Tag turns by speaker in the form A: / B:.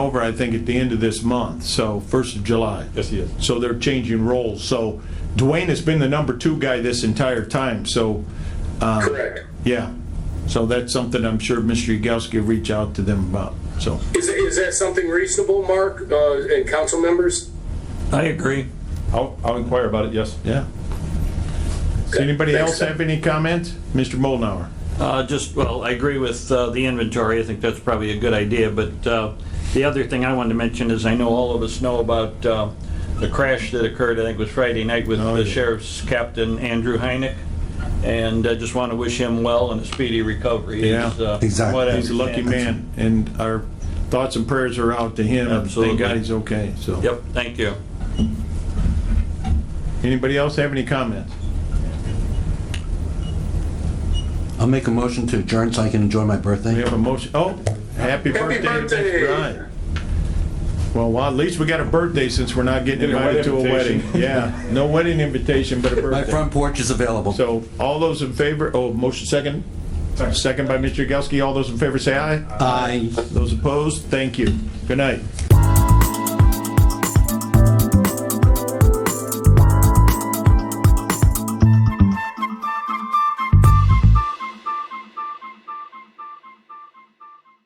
A: over, I think, at the end of this month, so 1st of July.
B: Yes, he is.
A: So they're changing roles. So Dwayne has been the number two guy this entire time, so, uh,
C: Correct.
A: yeah. So that's something I'm sure Mr. Yagowski will reach out to them about, so.
C: Is, is that something reasonable, Mark, uh, and council members?
D: I agree.
B: I'll, I'll inquire about it, yes.
A: Yeah. Does anybody
C: Thanks,
A: else
C: Doug.
A: have any comments? Mr. Molnauer?
D: Uh, Just, well, I agree with uh, the inventory, I think that's probably a good idea, but uh, the other thing I wanted to mention is I know all of us know about uh, the crash that occurred, I think it was Friday night, with
A: Oh,
D: the
A: yeah.
D: sheriff's captain, Andrew Heineck, and I just want to wish him well and a speedy recovery.
A: Yeah,
D: He's, uh,
E: exactly.
D: what I
A: He's a lucky
D: understand.
A: man, and our thoughts and prayers are out to him.
D: Absolutely.
A: Thank God he's okay, so.
D: Yep, thank you.
A: Anybody else have any comments?
E: I'll make a motion to adjourn so I can enjoy my birthday.
A: We have a motion, oh, happy birthday. to Mr.
C: birthday.
A: Bryant. Well, well, at least we got a birthday since we're not getting
B: Maybe a
A: invited to a
B: wedding
A: wedding.
B: invitation.
A: Yeah, no wedding invitation, but a
E: My
A: birthday.
E: front porch is available.
A: So all those in favor, oh, motion second? Second by Mr. Yagowski. All those in favor say aye.
E: Aye.
A: Those opposed, thank you. Good night.